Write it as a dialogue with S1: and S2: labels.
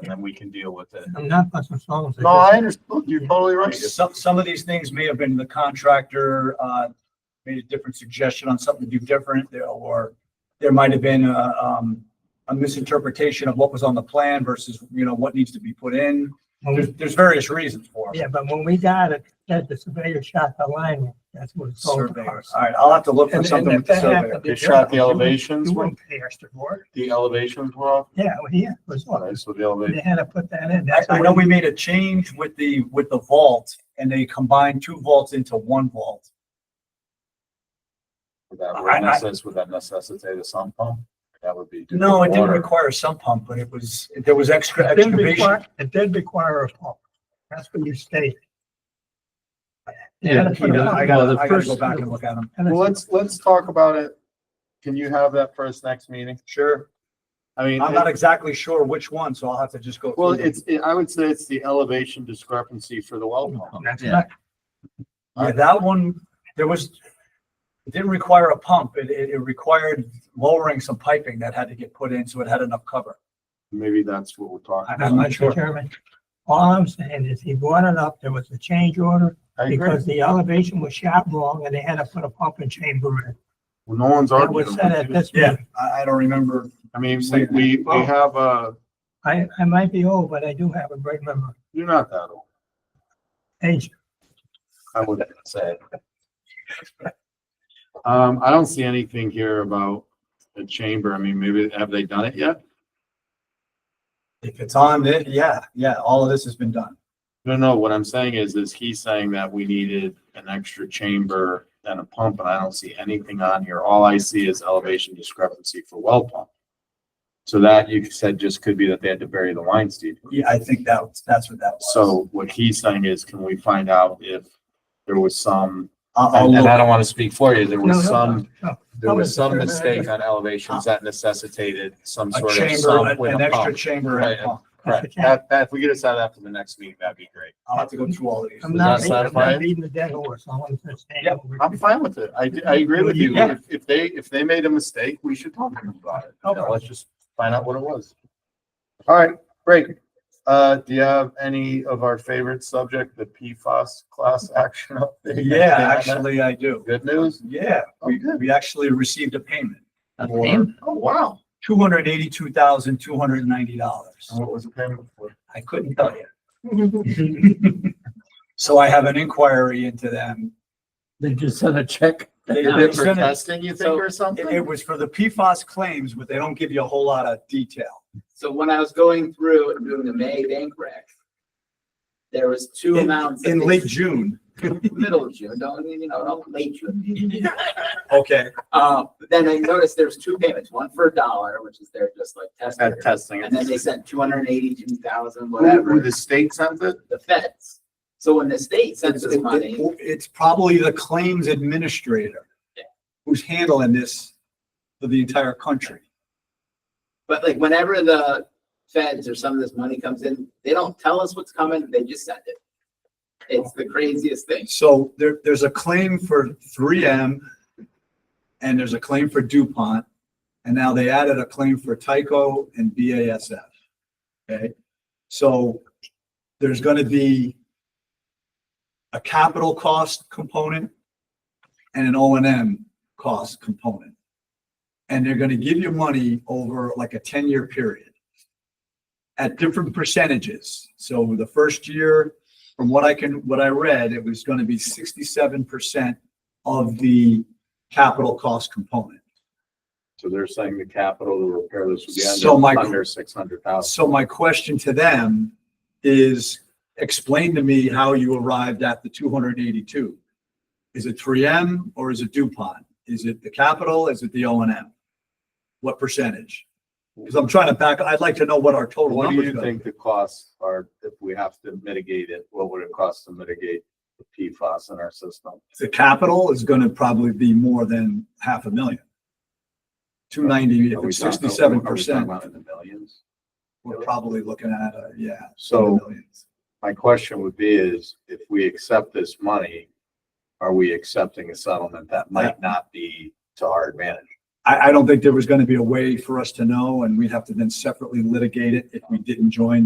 S1: and then we can deal with it.
S2: I'm not, that's what Sal was saying.
S3: No, I understand. You're totally right.
S4: Some, some of these things may have been the contractor, uh, made a different suggestion on something to do different, there- or there might have been a, um, a misinterpretation of what was on the plan versus, you know, what needs to be put in.
S2: When
S4: There's,
S2: we-
S4: there's various reasons for it.
S2: Yeah, but when we got it, that the surveyor shot the line, that's what it's all about.
S4: Surveyors. All right, I'll have to look for
S2: And- and
S4: something
S2: if
S4: with the
S2: that happened,
S4: surveyor.
S2: it
S3: They shot the
S2: happened. You wouldn't-
S3: elevations
S2: You
S3: when-
S2: wouldn't pay us to work.
S3: The elevations were off.
S2: Yeah, well, yeah, it was, all-
S3: Right, so the elevation.
S2: they had to put that in.
S4: I,
S2: That's
S4: I
S2: the
S4: know
S2: way-
S4: we made a change with the, with the vault and they combined two vaults into one vault.
S3: Would that,
S4: I- I-
S3: would necess- would that necessitate a sump pump? That would be.
S4: No, it didn't
S3: water.
S4: require a sump pump, but it was, there was extra
S2: It did
S4: excavation.
S2: require, it did require a pump. That's what you stated. They had
S4: Yeah,
S2: to put a pump.
S4: I gotta, I gotta go back and look at them.
S2: And
S3: Well,
S2: it's-
S3: let's, let's talk about it. Can you have that for us next meeting?
S4: Sure.
S3: I mean.
S4: I'm
S3: it-
S4: not exactly sure which one, so I'll have to just go.
S3: Well,
S4: through them.
S3: it's, it- I would say it's the elevation discrepancy for the well pump.
S2: That's
S5: Yeah.
S2: not,
S4: Yeah, that one, there was, it didn't require a pump. It, it, it required lowering some piping that had to get put in, so it had enough cover.
S3: Maybe that's what we're talking.
S4: I'm
S3: about.
S4: not
S2: Mr.
S4: sure.
S2: Chairman, all I'm saying is he brought it up, there was a change order
S3: I agree.
S2: because the elevation was shot wrong and they had to put a pump and chamber in.
S3: Well, No one's
S2: That was
S3: arguing.
S2: said
S3: with
S2: at
S3: you.
S2: this meeting.
S4: I, I don't remember.
S3: I mean, we, we, we have a,
S2: I, I might be old, but I do have a great memory.
S3: you're not that old.
S2: Age,
S3: I wouldn't say. Um, I don't see anything here about a chamber. I mean, maybe, have they done it yet?
S4: If it's on it, yeah, yeah, all of this has been done.
S3: No, no, what I'm saying is, is he's saying that we needed an extra chamber and a pump, and I don't see anything on here. All I see is elevation discrepancy for well pump. So that you said just could be that they had to bury the line, Steve.
S4: Yeah, I think that, was- that's what that was.
S3: So what he's saying is, can we find out if there was some,
S4: I'll, I'll
S3: and and I
S4: look.
S3: don't want to speak for you, there
S2: No,
S3: was
S2: no,
S3: some,
S2: no.
S3: there was some
S2: Sure.
S3: mistake on elevations that necessitated some
S4: a
S3: sort of
S4: chamber,
S3: sump
S4: an
S3: with
S4: an
S3: a
S4: extra
S3: pump.
S4: chamber and
S3: Right,
S4: a pump.
S3: Correct. That, that, if we could have that for the next meeting, that'd be great.
S4: I'll have to go through all of these.
S2: I'm
S3: Does that
S2: not, beating- I'm
S3: satisfy
S2: not
S3: it?
S2: beating the dead horse. All I'm just saying.
S4: Yep,
S2: we're-
S3: I'm fine with it. I, I agree with you.
S4: Yeah.
S3: If, if they, if they made a mistake, we should talk to them about it. You know,
S2: Okay.
S3: let's just find out what it was. All right, great. Uh, do you have any of our favorite subject, the PFAS class action update?
S4: Yeah,
S3: Anything on that?
S4: actually, I do.
S3: Good news? Oh,
S4: Yeah, we,
S3: Okay.
S4: we actually received a payment.
S5: A
S4: for
S5: payment?
S3: Oh, wow.
S4: Two hundred eighty-two thousand, two hundred and ninety dollars.
S3: And What was the payment for?
S4: I couldn't tell you. So I have an inquiry into them.
S5: They just sent a check.
S4: They-
S3: Is
S4: they
S3: it for
S4: sent it-
S3: testing, you think,
S6: So-
S3: or
S4: It it
S3: something?
S4: was for the PFAS claims, but they don't give you a whole lot of detail.
S6: So when I was going through and doing the May bank rec, there was two
S4: In-
S6: amounts. that
S4: In
S6: they-
S4: late June,
S6: Middle of June, don't, you know, don't late June.
S4: okay,
S6: Uh, but then I noticed there's two payments, one for a dollar, which is their just like
S3: At
S6: tester.
S3: testing.
S6: And then they sent two hundred and eighty-two thousand,
S3: Who, who
S6: whatever,
S3: the state sent it?
S6: the feds. So when the state sends
S4: it's,
S6: us money,
S4: it- it's probably the claims administrator
S6: Yeah.
S4: who's handling this for the entire country.
S6: but like whenever the feds or some of this money comes in, they don't tell us what's coming, they just send it. It's the craziest thing.
S4: So there, there's a claim for three M and there's a claim for DuPont. And now they added a claim for Tyco and BASF. Okay, so there's gonna be a capital cost component and an O and M cost component. And they're gonna give you money over like a ten-year period at different percentages. So the first year, from what I can, what I read, it was going to be sixty-seven percent of the capital cost component.
S3: So they're saying the capital to repair this would be
S4: So, Mike-
S3: under, under six hundred thousand.
S4: So my question to them is, explain to me how you arrived at the two hundred and eighty-two. Is it three M or is it DuPont? Is it the capital? Is it the O and M? What percentage? Because I'm trying to back, I'd like to know what our total
S3: What do
S4: numbers
S3: you
S4: are.
S3: think the costs are if we have to mitigate it? What would it cost to mitigate the PFAS in our system?
S4: The capital is going to probably be more than half a million. Two ninety,
S3: Are we talking-
S4: sixty-seven
S3: are we
S4: percent.
S3: talking about in the millions?
S4: we're probably looking at, uh, yeah.
S3: So
S4: millions.
S3: my question would be is, if we accept this money, are we accepting a settlement that might not be to our advantage?
S4: I, I don't think there was gonna be a way for us to know, and we'd have to then separately litigate it if we didn't join